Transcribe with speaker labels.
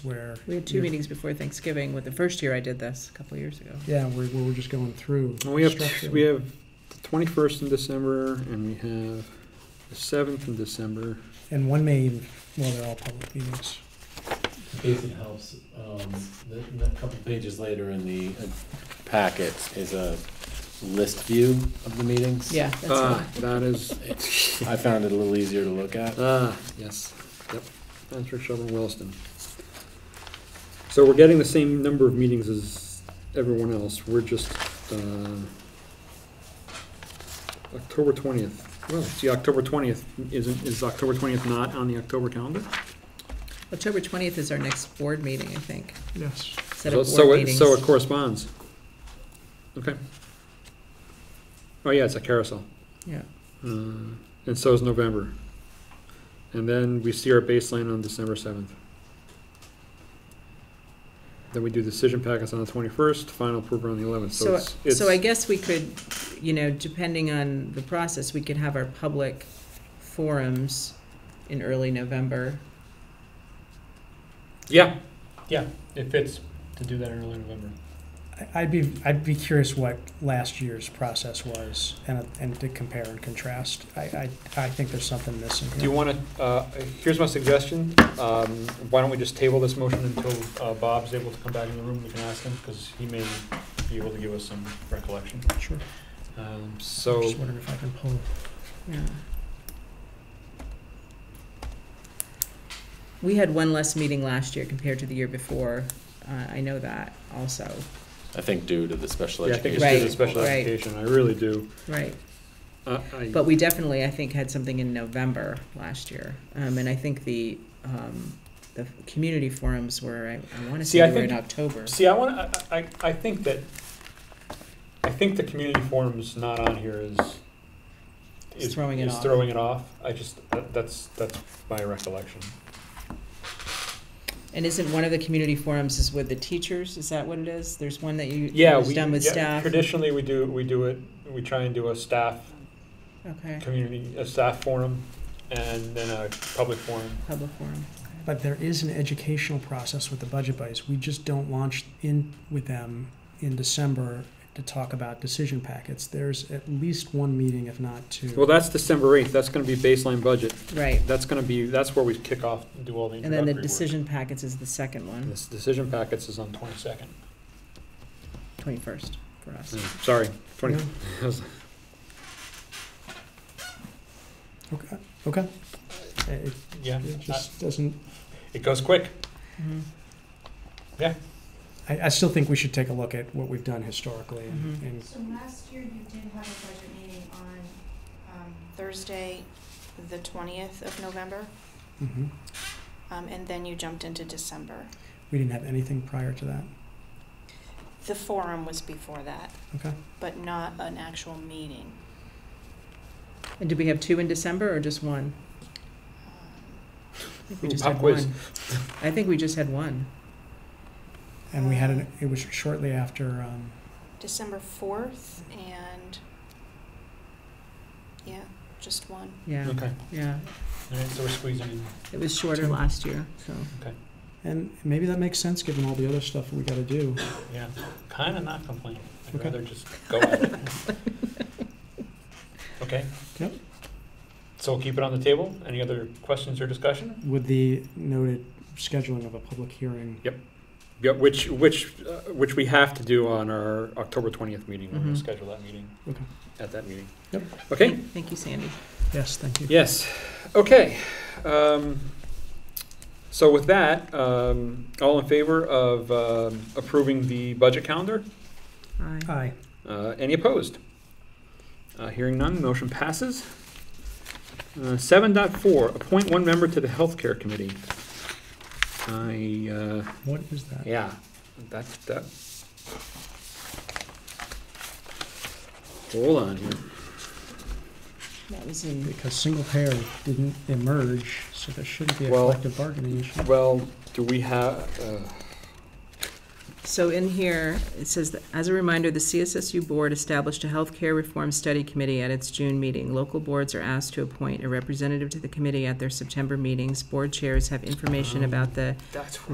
Speaker 1: where.
Speaker 2: We had two
Speaker 1: you're-
Speaker 2: meetings before Thanksgiving with the first year I did this, a couple years ago.
Speaker 1: Yeah, where, where we're just going through.
Speaker 3: And we have,
Speaker 1: structure.
Speaker 3: we have the twenty-first in December, and we have the seventh in December.
Speaker 1: And one may, even- well, they're all public meetings.
Speaker 4: If it helps, um, the, the couple pages later in the uh, packet is a list view of the meetings.
Speaker 2: Yeah, that's
Speaker 3: Ah,
Speaker 2: fine.
Speaker 3: that is,
Speaker 4: I found it a little easier to look at.
Speaker 3: ah, yes, yep, that's for Sheldon Williston. So we're getting the same number of meetings as everyone else, we're just, uh, October twentieth, well, see, October twentieth, isn't, is October twentieth not on the October calendar?
Speaker 2: October twentieth is our next board meeting, I think.
Speaker 1: Yes.
Speaker 2: Set
Speaker 3: So-
Speaker 2: of
Speaker 3: so
Speaker 2: board
Speaker 3: it-
Speaker 2: meetings.
Speaker 3: So it corresponds. Okay. Oh, yeah, it's a carousel.
Speaker 2: Yeah.
Speaker 3: Uh, And so is November. And then we see our baseline on December seventh. Then we do decision packets on the twenty-first, final approval on the eleventh, so
Speaker 2: So,
Speaker 3: it's, it's.
Speaker 2: so I guess we could, you know, depending on the process, we could have our public forums in early November.
Speaker 3: Yeah,
Speaker 5: It fits to do that in early November.
Speaker 1: I- I'd be, I'd be curious what last year's process was and, and to compare and contrast. I, I, I think there's something missing
Speaker 3: do you
Speaker 1: here.
Speaker 3: wanna, uh, here's my suggestion, um, why don't we just table this motion until, uh, Bob's able to come back in the room, we can ask him, because he may be able to give us some recollection.
Speaker 1: Sure.
Speaker 3: Um,
Speaker 1: I'm
Speaker 3: so,
Speaker 1: Just wondering if I can pull.
Speaker 2: Yeah. We had one less meeting last year compared to the year before. Uh, I know that also,
Speaker 4: I think due to the special
Speaker 3: yeah, I
Speaker 4: education.
Speaker 3: think it's just a
Speaker 2: Right,
Speaker 3: special
Speaker 2: right.
Speaker 3: education, I really do.
Speaker 2: right?
Speaker 3: Uh, I,
Speaker 2: But we definitely, I think, had something in November last year. Um, and I think the, um, the community forums were, I, I wanna
Speaker 3: See,
Speaker 2: say
Speaker 3: I
Speaker 2: they were in
Speaker 3: think-
Speaker 2: October.
Speaker 3: see, I wanna, I, I, I think that, I think the community forum's not on here is,
Speaker 2: It's
Speaker 3: is,
Speaker 2: throwing it
Speaker 3: is
Speaker 2: off.
Speaker 3: throwing it off, I just, that- that's, that's my recollection.
Speaker 2: And isn't one of the community forums is with the teachers? Is that what it is? There's one that you,
Speaker 3: Yeah,
Speaker 2: was
Speaker 3: we,
Speaker 2: done with
Speaker 3: yeah,
Speaker 2: staff?
Speaker 3: traditionally, we do, we do it, we try and do a staff,
Speaker 2: Okay,
Speaker 3: community, a staff forum, and then a public forum.
Speaker 2: public forum.
Speaker 1: But there is an educational process with the budget buddies. We just don't launch in with them in December to talk about decision packets. There's at least one meeting, if not two.
Speaker 3: Well, that's December eighth, that's gonna be baseline budget,
Speaker 2: Right.
Speaker 3: that's gonna be, that's where we kick off, and do all the
Speaker 2: And
Speaker 3: introductory
Speaker 2: then the
Speaker 3: work.
Speaker 2: decision packets is the second one,
Speaker 3: This decision packets is on twenty-second.
Speaker 2: twenty-first for us.
Speaker 3: Sorry, twenty,
Speaker 1: Yeah. Okay, okay. Uh, It
Speaker 3: yeah,
Speaker 1: it
Speaker 3: I-
Speaker 1: just doesn't,
Speaker 3: it goes quick.
Speaker 2: Mhm.
Speaker 1: I, I still think we should take a look at what we've done historically and,
Speaker 2: Mhm.
Speaker 1: and
Speaker 6: So last year you did have a budget meeting on um, Thursday, the twentieth of November,
Speaker 1: mhm.
Speaker 6: um, and then you jumped into December.
Speaker 1: we didn't have anything prior to that.
Speaker 6: The forum was before that.
Speaker 1: Okay.
Speaker 6: But not an actual meeting.
Speaker 2: And did we have two in December or just one? I
Speaker 6: Um,
Speaker 2: think we
Speaker 3: Ooh,
Speaker 2: just
Speaker 3: pop
Speaker 2: had
Speaker 3: quiz.
Speaker 2: one. I think we just had one.
Speaker 1: And we had an, it was shortly after, um,
Speaker 6: December fourth and, yeah, just one.
Speaker 2: Yeah,
Speaker 3: Okay,
Speaker 2: yeah.
Speaker 3: all right, so we're squeezing in.
Speaker 2: It was shorter
Speaker 1: Two.
Speaker 2: last year, so.
Speaker 1: and maybe that makes sense given all the other stuff we gotta do.
Speaker 3: Yeah, kind of not complaining. I'd
Speaker 1: Okay.
Speaker 3: rather just go at it. Okay?
Speaker 1: Yep.
Speaker 3: So we'll keep it on the table. Any other questions or discussion?
Speaker 1: With the noted scheduling of a public hearing.
Speaker 3: Yeah, which, which, uh, which we have to do on our October 20th meeting. We're going
Speaker 2: Mhm.
Speaker 3: to schedule that meeting.
Speaker 1: Mm-hmm. Okay.
Speaker 3: At that meeting.
Speaker 1: Yep.
Speaker 3: Okay?
Speaker 2: Thank- Thank you, Sandy.
Speaker 1: Yes, thank you.
Speaker 3: Yes, okay. Um, So with that, um, all in favor of um, approving the budget calendar?
Speaker 2: Aye.
Speaker 1: Aye.
Speaker 3: Uh, Any opposed? Uh, Hearing none, motion passes. Uh, 7.4 appoint one member to the Healthcare Committee. I, uh,
Speaker 1: What is that?
Speaker 3: yeah, that, that. Hold on here.
Speaker 2: That was in,
Speaker 1: Because single payer didn't emerge, so there shouldn't be a
Speaker 3: Well-
Speaker 1: collective bargaining issue.
Speaker 3: Well, do we have, uh,
Speaker 2: so in here, it says, that as a reminder, the CSSU Board established a healthcare reform study committee at its June meeting. Local boards are asked to appoint a representative to the committee at their September meetings. Board chairs have information
Speaker 3: Um,
Speaker 2: about the
Speaker 3: that's